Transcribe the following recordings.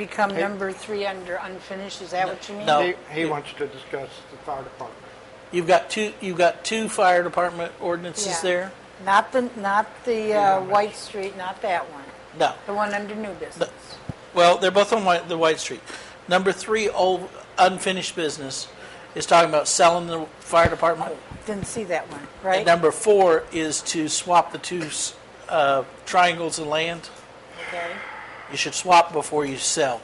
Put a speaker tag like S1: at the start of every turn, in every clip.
S1: Become number three under unfinished, is that what you mean?
S2: No.
S3: He, he wants to discuss the fire department.
S2: You've got two, you've got two fire department ordinances
S1: Yeah.
S2: there?
S1: Not the, not the uh, White Street, not that one,
S2: No.
S1: the one under new business.
S2: Well, they're both on White, the White Street. Number three, old unfinished business, is talking about selling the fire department.
S1: Didn't see that one,
S2: And
S1: right?
S2: number four is to swap the two s- uh, triangles of land.
S1: Okay.
S2: You should swap before you sell.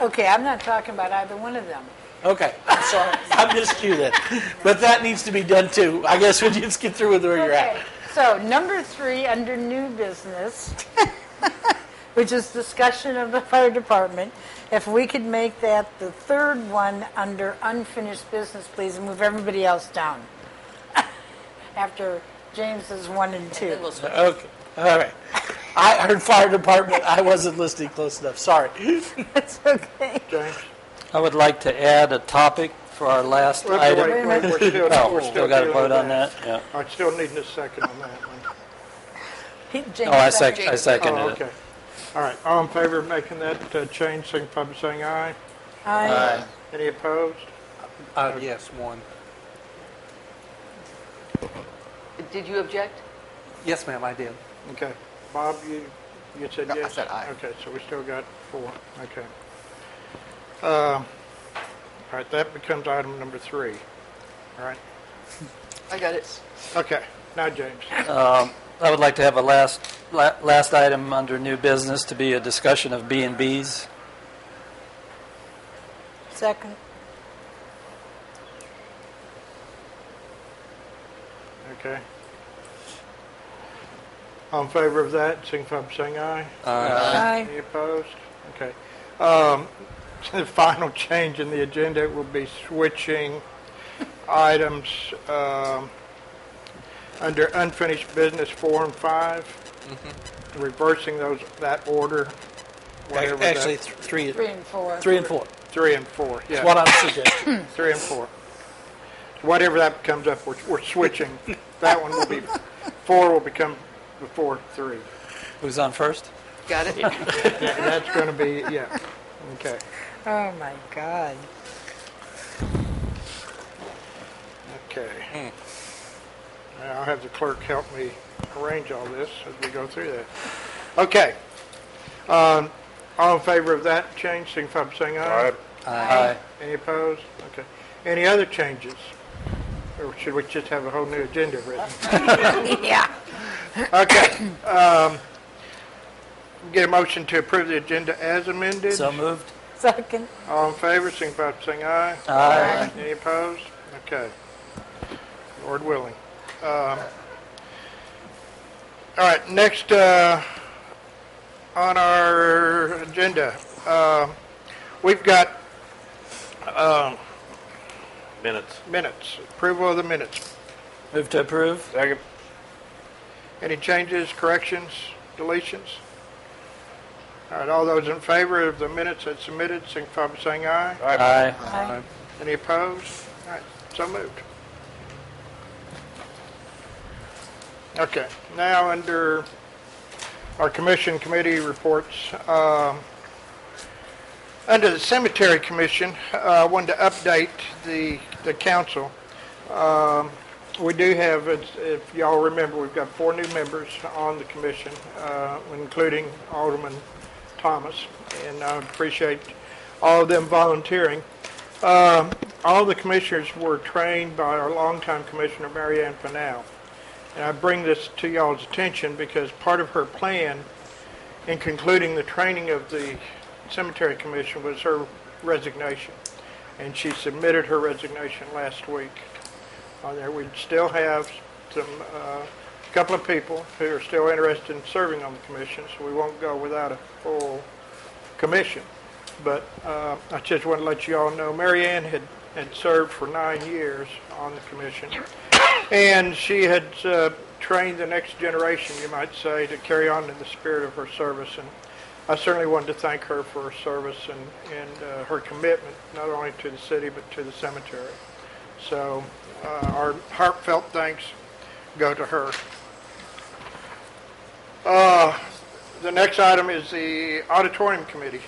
S1: Okay, I'm not talking about either one of them.
S2: Okay, I'm sorry, I miscued it. But that needs to be done too. I guess we just get through with where you're
S1: Okay,
S2: at.
S1: so number three, under new business, which is discussion of the fire department, if we could make that the third one under unfinished business, please, and move everybody else down. After James's one and two.
S2: Okay, all right. I heard fire department, I wasn't listening close enough, sorry.
S1: That's okay.
S3: James?
S4: I would like to add a topic for our last
S3: Wait, wait,
S4: item.
S3: wait, We're still,
S4: Oh,
S3: we're
S4: still got to
S3: dealing with
S4: vote on that? Yeah.
S3: I still need a second on that one.
S1: He-
S4: Oh, I
S1: James
S4: sec, I
S3: Oh,
S4: seconded it.
S3: okay. All right, all in favor of making that uh, change, signify by saying aye.
S1: Aye.
S3: Any opposed?
S5: Uh, yes, one.
S6: Did you object?
S5: Yes, ma'am, I did.
S3: Okay. Bob, you, you said
S7: No, I
S3: yes?
S7: said aye.
S3: Okay, so we still got four, okay. Uh, All right, that becomes item number three. All right,
S6: I got it.
S3: okay, now James.
S4: I would like to have a last, la- last item under new business to be a discussion of B and Bs.
S1: Second.
S3: Okay. All in favor of that, signify by saying aye.
S4: Uh,
S1: Aye.
S3: Any opposed? Okay. Um, The final change in the agenda will be switching items um, under unfinished business four and five, reversing those, that order, whatever that-
S2: Actually, th- three,
S1: Three and four.
S2: three and four.
S3: Three and four,
S2: That's what
S3: yeah,
S2: I'm suggesting.
S3: three and four. Whatever that comes up, we're we're switching. That one will be, four will become before three.
S4: Who's on first?
S6: Got it?
S3: Yeah, That's going to be, yeah, okay.
S1: Oh, my God.
S3: Okay. Now, I'll have the clerk help me arrange all this as we go through that. Okay. Um, All in favor of that change, signify by saying aye.
S4: Aye.
S3: Any opposed? Okay. Any other changes? Or should we just have a whole new agenda written?
S1: Yeah.
S3: Okay. um, Get a motion to approve the agenda as amended.
S4: So moved?
S1: Second.
S3: All in favor, signify by saying aye.
S4: Aye.
S3: Any opposed? Okay. Lord willing. Um, All right, next uh, on our agenda, uh, we've got
S8: Minutes.
S3: minutes, approval of the minutes.
S4: Move to approve?
S8: Second.
S3: Any changes, corrections, deletions? All right, all those in favor of the minutes as submitted, signify by saying aye.
S4: Aye.
S1: Aye.
S3: Any opposed? All right, so moved. Okay, now under our commission committee reports, um, under the cemetery commission, uh, I wanted to update the, the council. Um, We do have, it's- if y'all remember, we've got four new members on the commission, uh, including Alderman Thomas, and I appreciate all of them volunteering. Um, All the commissioners were trained by our longtime commissioner, Mary Ann Fennell. And I bring this to y'all's attention because part of her plan in concluding the training of the cemetery commission was her resignation. And she submitted her resignation last week on there. We still have some, a couple of people who are still interested in serving on the commission, so we won't go without a full commission. But uh, I just want to let you all know, Mary Ann had, had served for nine years on the commission, and she had uh, trained the next generation, you might say, to carry on in the spirit of her service. And I certainly wanted to thank her for her service and, and uh, her commitment, not only to the city, but to the cemetery. So uh, our heartfelt thanks go to her. Uh, The next item is the auditorium committee.